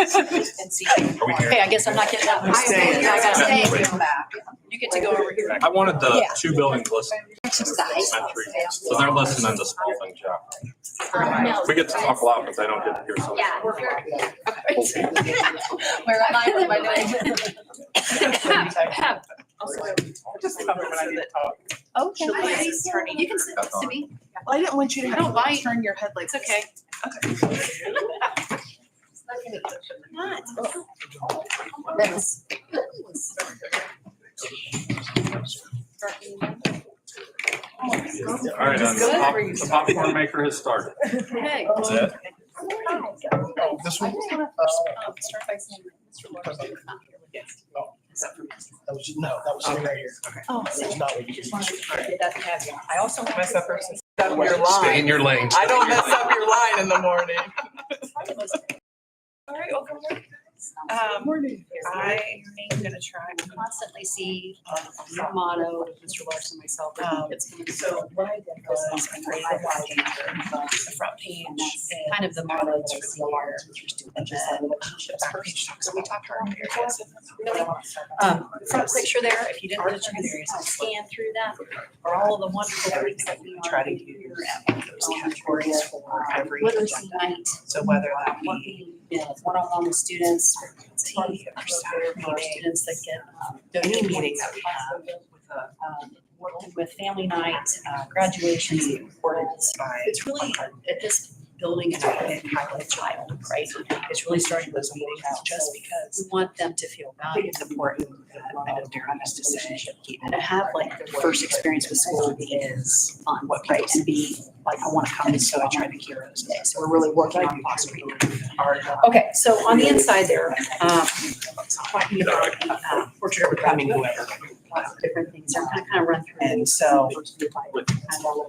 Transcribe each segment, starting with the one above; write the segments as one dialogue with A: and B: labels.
A: and see.
B: Are we here?
A: Okay, I guess I'm not getting up.
C: I'm staying.
A: I gotta stay.
B: Wait.
A: You get to go over here.
B: I wanted the
C: Yeah.
B: two buildings listed.
C: Exercise.
B: Not three. So they're listening to small thing job.
D: Um, no.
B: We get to talk a lot, but they don't get to hear so much.
D: Yeah, we're-
A: Where am I? What am I doing?
E: Just cover what I did talk.
C: Okay.
E: She'll be-
A: You can sit next to me.
C: Well, I didn't want you to
E: I
C: have
E: don't
C: to
E: like-
C: turn your head like.
A: It's okay.
C: That's.
B: All right, then the pop- the popcorn maker has started.
A: Okay.
B: That's it.
F: This one?
E: Um,
A: Start by saying, Mr. Lawrence, you're not here with us.
F: Oh. That was, no, that was sitting right here.
A: Oh,
F: That was not what you.
A: it doesn't have you. I also want
E: Mess up her-
A: to-
E: mess up your
G: Stay in
E: line.
G: your lane.
E: I don't mess up your line in the morning.
A: All right, welcome.
E: Um, I am gonna try.
A: Constantly see um, your motto, Mr. Larson, myself.
E: Um,
A: It's gonna be
E: So
A: so.
E: what I did was I created a white paper, the front page.
A: And that's
E: and
A: kind of the motto that I see here.
E: And just the relationships first, so we talked about areas.
A: Um, front picture there, if you didn't get a chance to scan through that, are all of the wonderful things that we
E: Try
A: are
E: to
A: doing
E: use
A: here at
E: those categories for every
A: Literacy
E: agenda.
A: Night,
E: So whether that be
A: working with one-on-one with students,
E: tea or staff
A: for
E: meeting,
A: students that get. um,
E: any meeting that we have with a
A: um, Working with family night, uh, graduations, importance.
E: by.
A: It's really at this building, it's really a highlight child, right? It's really starting those meetings just because
E: because
A: we want them to feel
E: I
A: valued.
E: think it's important that I know Darren has to say keep
A: and to have like their first experience with school is fun, what right, and be like, I wanna come, so I try to hear those days, so we're really working on fostering.
E: our
A: Okay, so on the inside there, um, talking about, uh, portrait of a
E: I
A: proud
E: mean,
A: woman,
E: whoever.
A: lots of different things, I'm gonna kind of run through.
E: And so
A: The,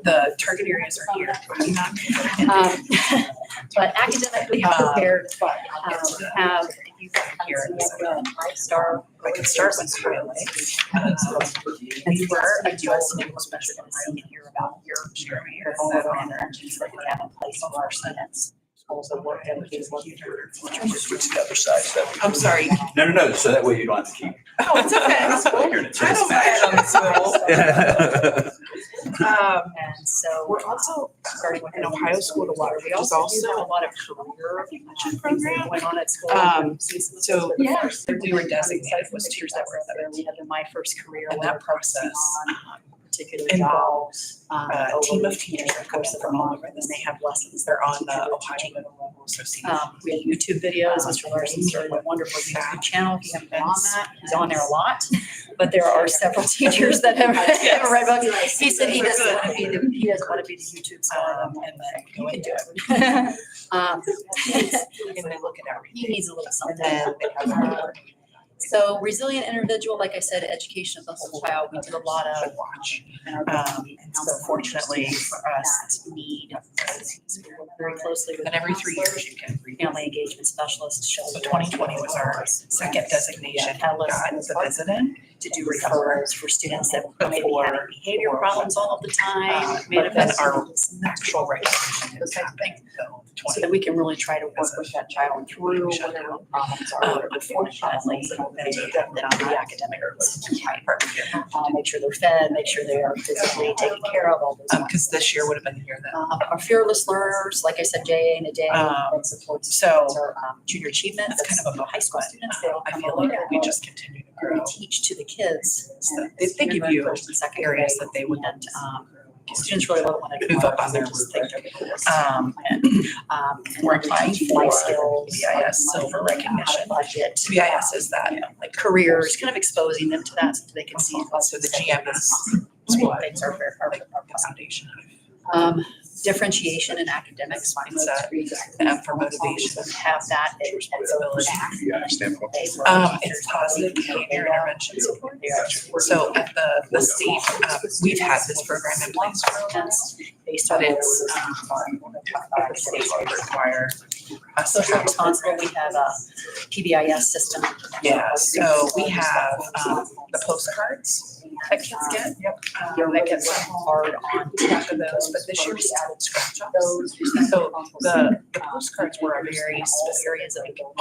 E: the target areas are here.
A: um, but academically prepared, um, we have, you
E: Here
A: here,
E: it is.
A: five star.
E: I can start with
A: Um,
E: highlights. Uh, so it's-
A: And you were a US Naval Special Committee and hear about your
E: Sure.
A: your vulnerable interactions that we have in place with our students. Also work that we do with your teachers.
H: Switch to the other side, so that.
E: I'm sorry.
H: No, no, no, so that way you don't have to keep.
E: Oh, it's okay.
H: Hearing it.
E: I don't mind on this level. Um,
A: And so
E: We're also starting with an
A: and
E: Ohio School to Water, which is also a lot of career.
A: recognition program that went on at school.
E: Um,
A: So the
E: Yeah.
A: first, we were designated was teachers that were there. We had the My First Career.
E: And that process uh, um,
A: on Particular job. um,
E: involves a team of teachers that comes from all over, and they have lessons. They're on the Ohio Level Association.
A: Um, we have YouTube videos, Mr. Larson started a wonderful YouTube channel, if you haven't been on that, he's on there a lot. But there are several teachers that have have read books. He said he doesn't want to be the, he doesn't want to be the YouTube star.
E: Um, and then go into it.
A: Um,
E: And they look at everything.
A: He needs a little
E: And uh,
A: something.
E: then they have our
A: So resilient individual, like I said, education of the whole child, we did a lot of.
E: watch.
A: in our
E: Um, and so fortunately for us,
A: That need, we work very closely with.
E: then every three years you can read.
A: Family engagement specialist, Sheldon.
E: So 2020 was our second designation,
A: Yeah.
E: got the resident.
A: to do referrals for students that maybe having behavior problems all of the time,
E: Uh, but then
A: manifest.
E: our actual regulation
A: Those
E: is
A: type of
E: happening,
A: things.
E: so
A: So
E: twenty.
A: that we can really try to work with that child through whatever problems
E: Um,
A: are.
E: unfortunately,
A: They
E: they
A: have that on the academic Uh, make sure they're fed, make sure they are physically taken care of, all those.
E: Um, because this year would have been the year that,
A: Um, our fearless learners, like I said, JA and a day
E: Um,
A: that supports
E: so
A: our um, junior achievement.
E: that's kind of a
A: High
E: high
A: school
E: school.
A: students, they all
E: I
A: come
E: feel
A: along.
E: like we just continue to
A: We
E: grow.
A: teach to the kids.
E: So They they give you areas that they would,
A: And, um, students really want to.
E: Move up on their
A: Just think they're cool.
E: um,
A: Um, and
E: We're applying
A: teaching life
E: for
A: skills,
E: BIS silver
A: like, how to
E: recognition.
A: Budget. um,
E: BIS is that,
A: Like careers, kind of exposing them to that so they can see.
E: so the GM is
A: What things are, fair- are, are possible.
E: foundation,
A: Um, differentiation in academics, finding those
E: Mindset.
A: three.
E: the M for motivation.
A: Have that. in-
E: Responsibility.
H: Yeah, I stand for
A: They work
E: Um,
A: with
E: it's
A: their-
E: positive behavior intervention support.
A: They are
E: So at the, the state, uh, we've had this program in place for a while.
A: That's Based on
E: But
A: its.
E: it's, um, our state would require us to
A: Social responsible, we have a PBIS system.
E: Yeah, so we have, um, the postcards that kids get. Yep. Um, that gets
A: hard on
E: track of those, but this year we added scratch offs.
A: those.
E: So the, the postcards were a very specific
A: areas of